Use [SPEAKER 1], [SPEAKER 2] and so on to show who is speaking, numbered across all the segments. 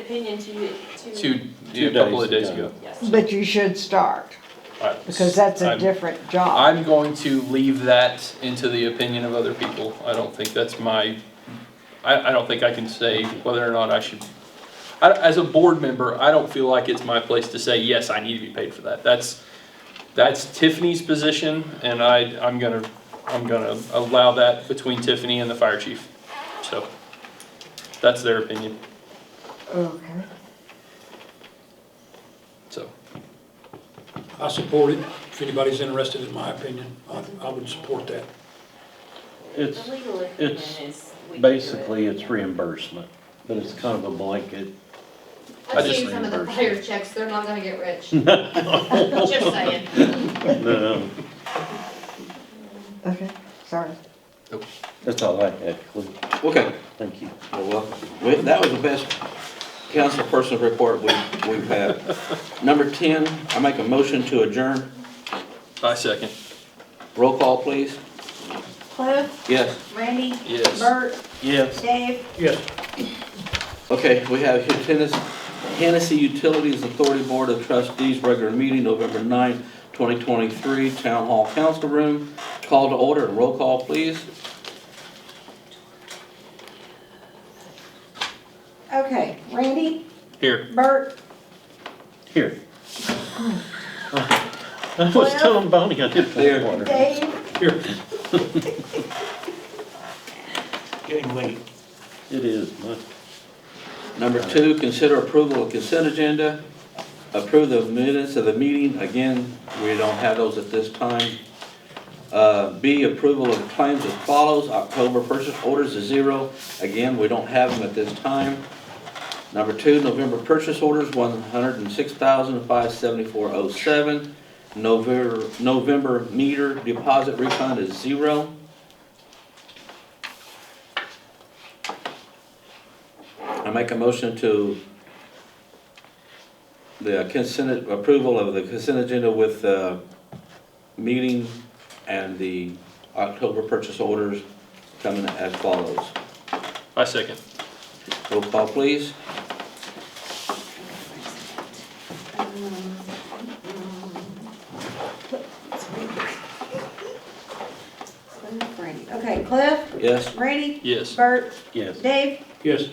[SPEAKER 1] opinion to you, to,
[SPEAKER 2] Two, yeah, a couple of
[SPEAKER 3] days
[SPEAKER 2] days ago.
[SPEAKER 1] yes.
[SPEAKER 4] But you should start,
[SPEAKER 2] Alright,
[SPEAKER 4] because that's a
[SPEAKER 2] I'm-
[SPEAKER 4] different job.
[SPEAKER 2] I'm going to leave that into the opinion of other people. I don't think that's my, I, I don't think I can say whether or not I should. I, as a board member, I don't feel like it's my place to say, yes, I need to be paid for that. That's, that's Tiffany's position and I, I'm gonna, I'm gonna allow that between Tiffany and the fire chief. So, that's their opinion,
[SPEAKER 4] Okay.
[SPEAKER 2] so.
[SPEAKER 5] I support it. If anybody's interested in my opinion, I, I would support that.
[SPEAKER 3] It's,
[SPEAKER 1] The legal opinion
[SPEAKER 3] it's
[SPEAKER 1] is. we can do it.
[SPEAKER 3] basically, it's reimbursement, but it's kind of a blanket.
[SPEAKER 2] I
[SPEAKER 6] I've
[SPEAKER 2] just
[SPEAKER 6] seen some of the
[SPEAKER 3] reimbursed
[SPEAKER 6] fire checks, they're not gonna get rich. Just saying.
[SPEAKER 3] No,
[SPEAKER 4] Okay, sorry.
[SPEAKER 3] that's all I had, Cliff.
[SPEAKER 7] Okay,
[SPEAKER 3] Thank you.
[SPEAKER 7] well, well, we- that was the best council person report we, we've had. Number ten, I make a motion to adjourn.
[SPEAKER 2] I second,
[SPEAKER 7] Roll call, please.
[SPEAKER 1] Cliff,
[SPEAKER 7] Yes.
[SPEAKER 1] Randy,
[SPEAKER 2] yes.
[SPEAKER 1] Bert,
[SPEAKER 3] Yes.
[SPEAKER 1] Dave,
[SPEAKER 5] Yes.
[SPEAKER 7] Okay, we have Hennessy, Hennessy Utilities Authority Board of Trustees, regular meeting, November 9, twenty twenty-three, Town Hall Council Room. Call to order and roll call, please.
[SPEAKER 4] Okay, Randy,
[SPEAKER 2] Here,
[SPEAKER 4] Bert,
[SPEAKER 3] Here. I was telling Bonnie I didn't
[SPEAKER 7] There.
[SPEAKER 3] drink water.
[SPEAKER 4] Dave,
[SPEAKER 5] Here,
[SPEAKER 3] Getting late. It is, my.
[SPEAKER 7] Number two, consider approval of consent agenda. Approve the minutes of the meeting. Again, we don't have those at this time. Uh, B, approval of claims as follows. October purchase orders is zero. Again, we don't have them at this time. Number two, November purchase orders, one hundred and six thousand, five seventy-four oh seven. November, November meter deposit refund is zero. I make a motion to the consent, approval of the consent agenda with the meeting and the October purchase orders coming as follows.
[SPEAKER 2] I second,
[SPEAKER 7] Roll call, please.
[SPEAKER 4] Cliff, Randy. Okay, Cliff,
[SPEAKER 7] Yes?
[SPEAKER 4] Randy,
[SPEAKER 2] yes.
[SPEAKER 4] Bert,
[SPEAKER 3] Yes.
[SPEAKER 4] Dave,
[SPEAKER 5] yes.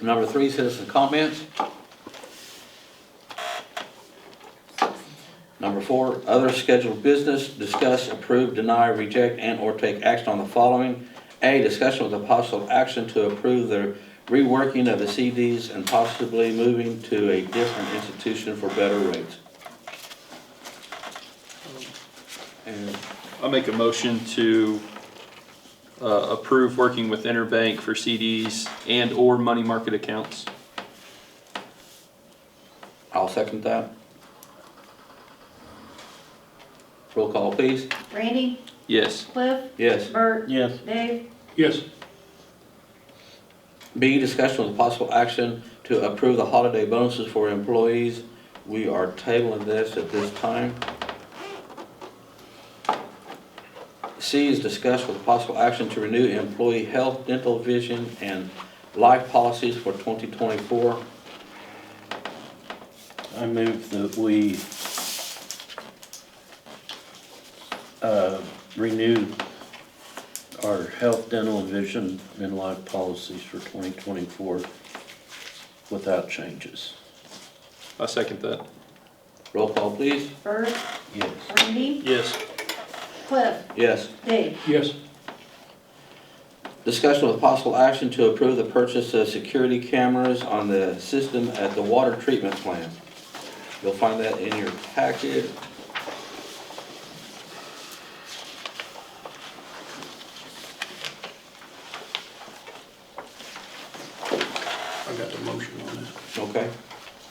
[SPEAKER 7] Number three, citizen comments. Number four, other scheduled business, discuss, approve, deny, reject, and/or take action on the following. A, discussion with a possible action to approve the reworking of the CDs and possibly moving to a different institution for better rates. And
[SPEAKER 2] I make a motion to uh, approve working with Interbank for CDs and/or money market accounts.
[SPEAKER 7] I'll second that. Roll call, please.
[SPEAKER 4] Randy,
[SPEAKER 2] Yes.
[SPEAKER 4] Cliff,
[SPEAKER 7] Yes.
[SPEAKER 4] Bert,
[SPEAKER 3] Yes.
[SPEAKER 4] Dave,
[SPEAKER 5] Yes.
[SPEAKER 7] B, discussion with possible action to approve the holiday bonuses for employees. We are tabling this at this time. C is discussed with possible action to renew employee health, dental, vision, and life policies for 2024.
[SPEAKER 3] I move that we uh, renew our health, dental, and vision and life policies for 2024 without changes.
[SPEAKER 2] I second that.
[SPEAKER 7] Roll call, please.
[SPEAKER 4] Bert,
[SPEAKER 3] Yes.
[SPEAKER 4] Randy,
[SPEAKER 2] Yes.
[SPEAKER 4] Cliff,
[SPEAKER 7] Yes.
[SPEAKER 4] Dave,
[SPEAKER 5] Yes.
[SPEAKER 7] Discussion with possible action to approve the purchase of security cameras on the system at the water treatment plant. You'll find that in your packet.